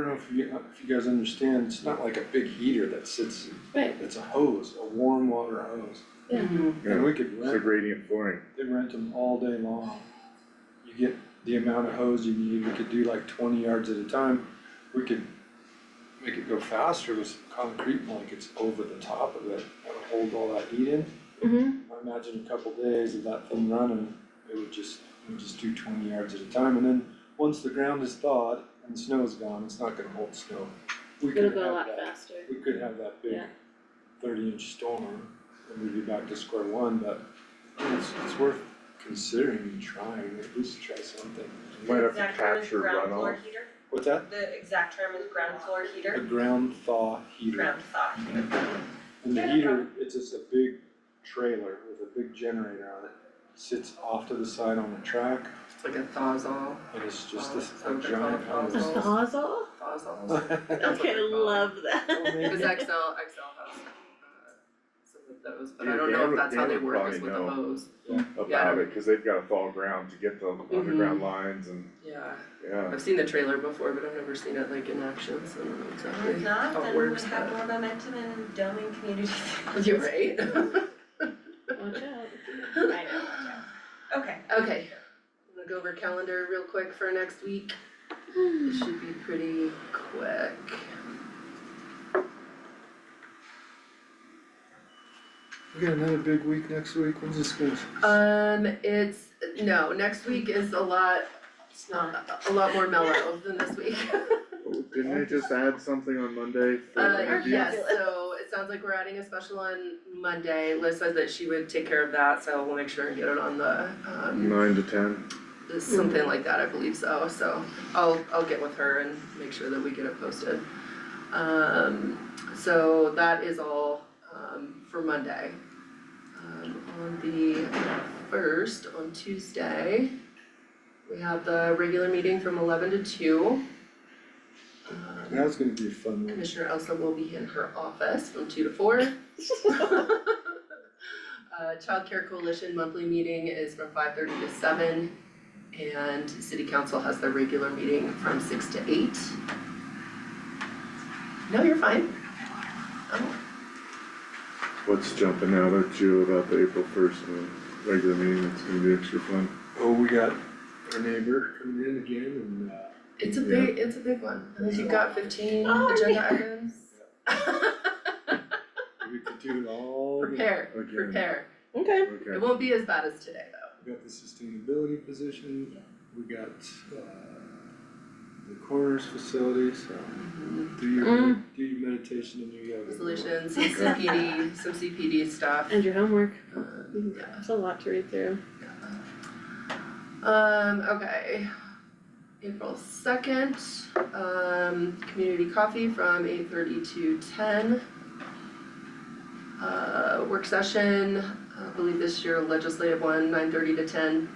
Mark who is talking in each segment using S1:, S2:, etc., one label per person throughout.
S1: know if you, if you guys understand, it's not like a big heater that sits,
S2: Right.
S1: it's a hose, a warm water hose.
S3: Yeah,
S1: And we could
S3: it's a
S1: rent,
S3: gradient flooring.
S1: they rent them all day long. You get the amount of hose you need, we could do like twenty yards at a time. We could make it go faster with some concrete blankets over the top of it, that would hold all that heat in.
S2: Mm-hmm,
S1: I imagine a couple days of that thing running, it would just, it would just do twenty yards at a time, and then, once the ground is thawed and the snow is gone, it's not gonna hold snow. We
S2: it'll
S1: could
S2: go a
S1: have
S2: lot
S1: that,
S2: faster.
S1: we could have that big
S2: Yeah.
S1: thirty inch storm, and we'd be back to square one, but it's, it's worth considering and trying, at least try something.
S3: You Might have to
S4: Exact term is
S3: capture
S4: ground floor
S3: runoff.
S4: heater,
S1: What's that?
S4: the exact term is ground floor
S1: A
S4: heater,
S1: ground thaw heater,
S4: ground thaw heater.
S1: and the
S4: Yeah, no
S1: heater, it's just a big trailer with a big generator on it. Sits off to the side on the track,
S5: It's like a thawzall,
S1: And it's just this
S5: Oh,
S1: a
S5: it's
S1: giant
S5: all-
S1: house.
S5: it's all-
S2: Awesome,
S3: Oh,
S5: thawzall.
S1: Well,
S5: That's what
S2: okay,
S5: they're called.
S2: love that.
S5: It was
S1: maybe-
S5: XL, XL has uh, some of those, but I
S3: Yeah,
S5: don't
S3: they
S5: know
S3: would-
S5: if that's
S3: they
S5: how they
S3: would
S5: work is
S3: probably
S5: with the
S3: know.
S5: hose. Yeah.
S3: about it, cause they've got thaw ground to get the underground lines and,
S5: Yeah,
S3: yeah.
S5: I've seen the trailer before, but I've never seen it like in action, so I don't know
S4: If
S5: exactly.
S4: not,
S5: How it
S4: then we would
S5: works,
S4: have
S5: but-
S4: more momentum in dumbing communities.
S5: You're right.
S2: Watch out.
S4: I know, watch out. Okay,
S5: Okay, I'm gonna go over calendar real quick for next week. It should be pretty quick.
S1: We got another big week next week, when's this gonna?
S2: Uh,
S5: Um, it's, no, next week is a lot, it's not, a lot more mellow than this week.
S3: Didn't they just add something on Monday for
S5: Uh,
S3: interviews?
S5: yes, so it sounds like we're adding a special on Monday. Liz says that she would take care of that, so we'll make sure and get it on the, um,
S3: Nine to ten,
S5: something like that, I believe so, so I'll, I'll get with her and make sure that we get it posted. Um, so that is all, um, for Monday. Um, on the first, on Tuesday, we have the regular meeting from eleven to two. Um,
S1: That's gonna be a fun one.
S5: Commissioner Elsa will be in her office from two to four. Uh, Child Care Coalition monthly meeting is from five thirty to seven. And City Council has their regular meeting from six to eight. No, you're fine. Oh,
S3: what's jumping out at you about the April first and the regular meeting, that's gonna be extra fun.
S1: Oh, we got our neighbor coming in again and uh.
S5: it's a big, it's a big one. I think you've got fifteen
S2: Oh,
S5: agenda items.
S1: We could do it all. the-
S5: Prepare,
S3: Again.
S5: prepare.
S2: Okay.
S5: It
S3: Okay,
S5: won't be as bad as today though.
S1: We got the sustainability position, we got uh the coroner's facility, so do your,
S2: Mm.
S1: do your meditation and your yoga.
S5: Resolutions, some CPD, some CPD stuff.
S2: And your homework,
S5: Um, yeah.
S2: it's a lot to read through.
S5: Um, okay. April second, um, community coffee from eight thirty to ten. Uh, work session, I believe this year legislative one, nine thirty to ten.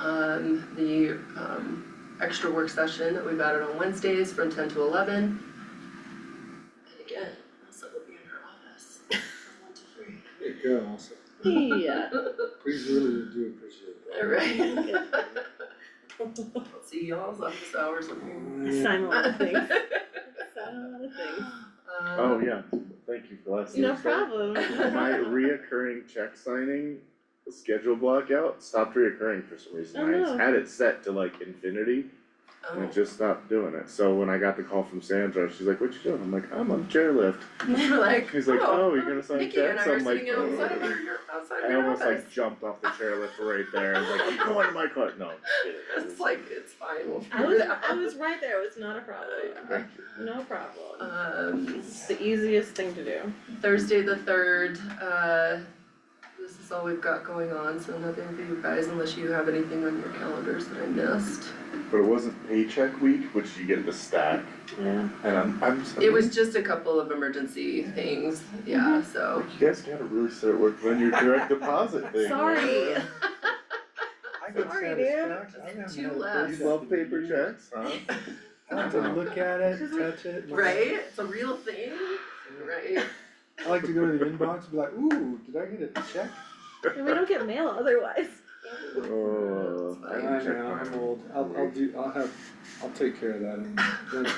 S5: Um, the, um, extra work session that we've added on Wednesdays from ten to eleven. And again, Elsa will be in her office from one to three.
S1: There you go, also,
S2: Yeah.
S1: please really do appreciate that.
S5: Alright. Let's see y'all's office hours looking.
S2: Sign a lot of things, sign a lot of things.
S3: oh yeah, thank you for last
S2: No
S3: year's thing.
S2: problem.
S3: My reoccurring check signing schedule blockout stopped reoccurring for some reason,
S2: Oh, no.
S3: I had it set to like infinity.
S5: Um,
S3: And it just stopped doing it, so when I got the call from Sandra, she's like, what you doing? I'm like, I'm on chairlift,
S5: You were like,
S3: He's like, "Oh, you're
S5: oh,
S3: gonna sign
S5: Nikki and I
S3: checks?"
S5: were
S3: I'm like,
S5: sitting outside of
S3: "Oh."
S5: your, outside of
S3: I
S5: your
S3: almost
S5: office.
S3: like jumped off the chairlift right there, I was like, you going to my club, no.
S5: It's like, it's fine, we'll
S2: I
S5: figure
S2: was,
S5: it
S2: I
S5: out.
S2: was right there, it was not a problem,
S3: Thank
S2: no problem.
S5: Um,
S2: It's the easiest thing to do.
S5: Thursday the third, uh, this is all we've got going on, so nothing for you guys unless you have anything on your calendars that I missed.
S3: you. But it wasn't paycheck week, which you get the stack,
S2: Yeah.
S3: and I'm, I'm.
S5: It was just a couple of emergency things, yeah,
S2: Mm-hmm.
S5: so.
S3: You guys gotta really start working on your direct deposit thing.
S2: Sorry.
S1: I get
S2: Sorry, dude.
S1: satisfaction, I haven't
S5: Two
S1: had a
S5: left.
S3: You love paper checks, huh?
S1: I have to look at it, touch it. look at it.
S5: Right, it's a real thing, right?
S1: I like to go to the inbox and be like, ooh, did I get a check?
S2: And we don't get mail otherwise.
S3: Oh,
S5: That's
S3: I Oh,
S5: fine.
S3: didn't check
S1: know,
S3: mine.
S1: I'm old, I'll, I'll do, I'll have, I'll take care of that, and that's